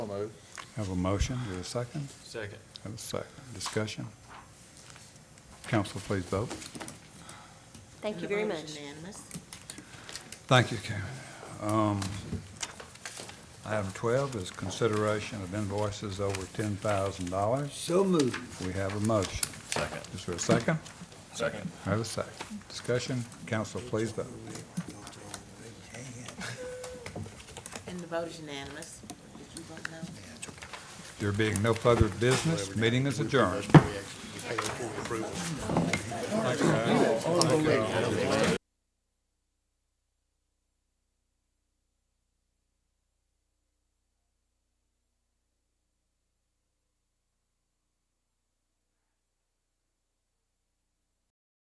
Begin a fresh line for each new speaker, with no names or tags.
So moved.
Have a motion, do a second,
Second.
have a second, discussion. Council, please vote.
Thank you
The
very
vote is
much.
unanimous.
Thank you, Karen. Um, Item 12 is consideration of invoices over $10,000.
So moved.
We have a motion.
Second.
Is there a second?
Second.
Have a second. Discussion, council, please vote.
And the vote is unanimous. Did you vote no?
There being no further business, meeting is adjourned.